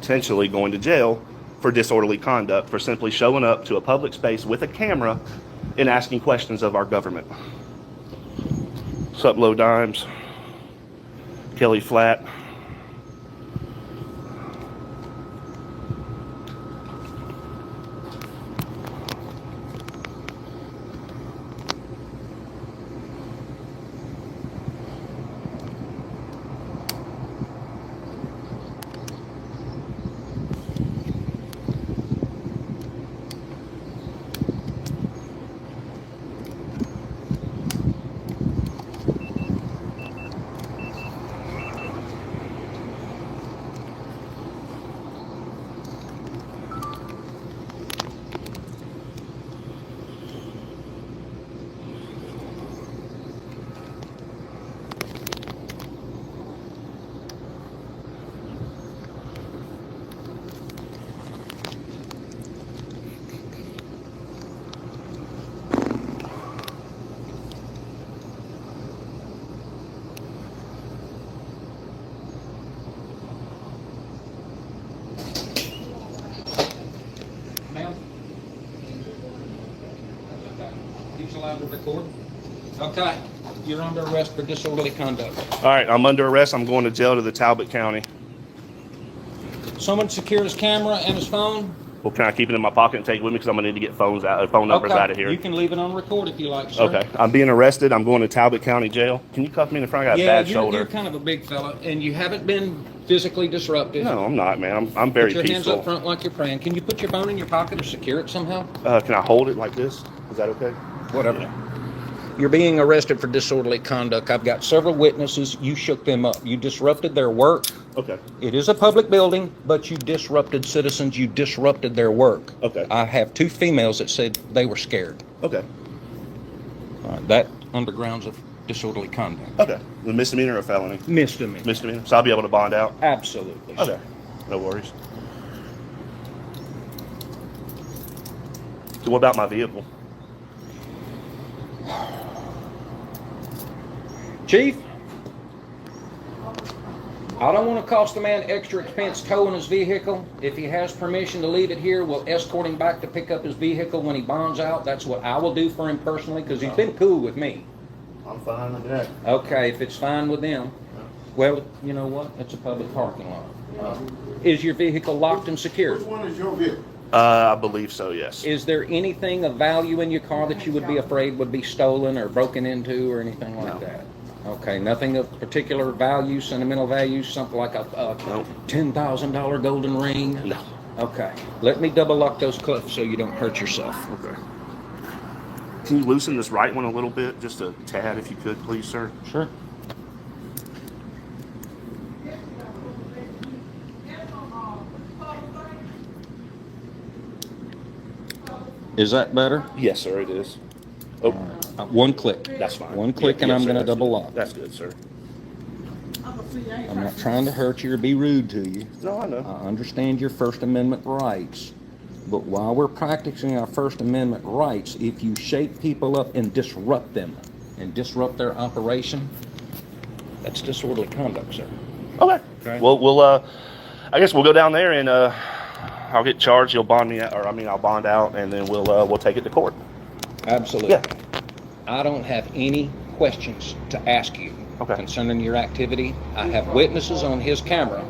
potentially going to jail for disorderly conduct for simply showing up to a public space with a camera and asking questions of our government. Sup, Low Dimes, Kelly Flat. Ma'am? He's allowed to record? Okay, you're under arrest for disorderly conduct. All right, I'm under arrest. I'm going to jail to the Talbot County. Someone secure his camera and his phone? Well, can I keep it in my pocket and take it with me? Because I'm gonna need to get phones out, phone numbers Okay, out of here. You can leave it on record if you like, sir. Okay, I'm being arrested. I'm going to Talbot County Jail. Can you cuff me in the front? I got a Yeah, bad you're- You're shoulder. kind of a big fella, and you haven't been physically disruptive. No, I'm not, man. I'm, I'm very Put your hands up peaceful. front like you're praying. Can you put your phone in your pocket or secure it somehow? Uh, can I hold it like this? Is that okay? Whatever. You're being arrested for disorderly conduct. I've got several witnesses. You shook them up. You disrupted their work. Okay. It is a public building, but you disrupted citizens. You disrupted their work. Okay. I have two females that said they were scared. Okay. All right, that undergrounds of disorderly conduct. Okay. The misdemeanor or felony? Misdemeanor. Misdemeanor. So I'll be able to bond out. Absolutely. Okay. No worries. So what about my vehicle? Chief, I don't want to cost the man extra expense towing his vehicle. If he has permission to leave it here, we'll escort him back to pick up his vehicle when he bonds out. That's what I will do for him personally because Oh. he's been cool with me. I'm fine with that. Okay, if it's fine with them. Well, you know what? It's a public parking lot. Is your vehicle locked and secured? Which one is your vehicle? Uh, I believe so, yes. Is there anything of value in your car that you would be afraid would be stolen or broken into or anything like No. that? Okay, nothing of particular value, sentimental value, something like a, a Nope. ten thousand dollar golden ring? No. Okay, let me double lock those clips so you don't hurt yourself. Okay. Can you loosen this right one a little bit, just a tad, if you could, please, sir? Sure. Is that better? Yes, sir, it is. Oh, Uh, One click. that's fine. One click Yeah, and yes, I'm sir, gonna that's double good. lock. That's good, sir. I'm not trying to hurt you or be rude to you. No, I know. I understand your First Amendment rights, but while we're practicing our First Amendment rights, if you shake people up and disrupt them and disrupt their operation, that's disorderly conduct, sir. Okay. Okay. Well, we'll. Uh, I guess we'll go down there and uh, I'll get charged. You'll bond me out, or I mean, I'll bond out, and then we'll uh, we'll take it to court. Absolutely. Yeah. I don't have any questions to ask you Okay. concerning your activity. I have witnesses on his camera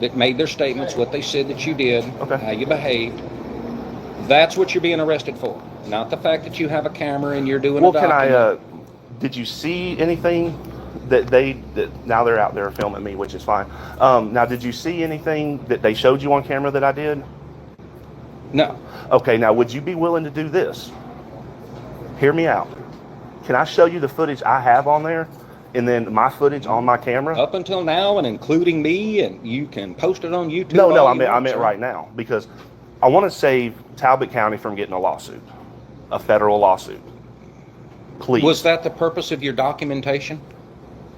that made their statements, what they said that you did, Okay. how you behaved. That's what you're being arrested for, not the fact that you have a camera and you're doing a Well, can document. I? Uh, did you see anything that they? That now they're out there filming me, which is fine. Um, now, did you see anything that they showed you on camera that I did? No, Okay. Now, would you be willing to do this? Hear me out. Can I show you the footage I have on there, and then my footage on my camera? up until now and including me, and you can post it on YouTube. No, no, all I you meant, I want, meant sir. right now because I want to save Talbot County from getting a lawsuit, a federal lawsuit. Please. Was that the purpose of your documentation?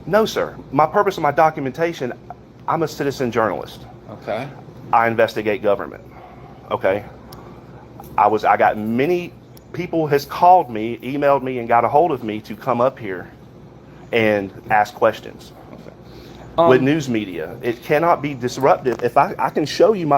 no, sir. My purpose of my documentation, I'm a citizen journalist. Okay. I investigate government. Okay. I was I got many people has called me, emailed me and got a hold of me to come up here and ask questions. Okay. with news media. It cannot be disruptive. If I, I can show you my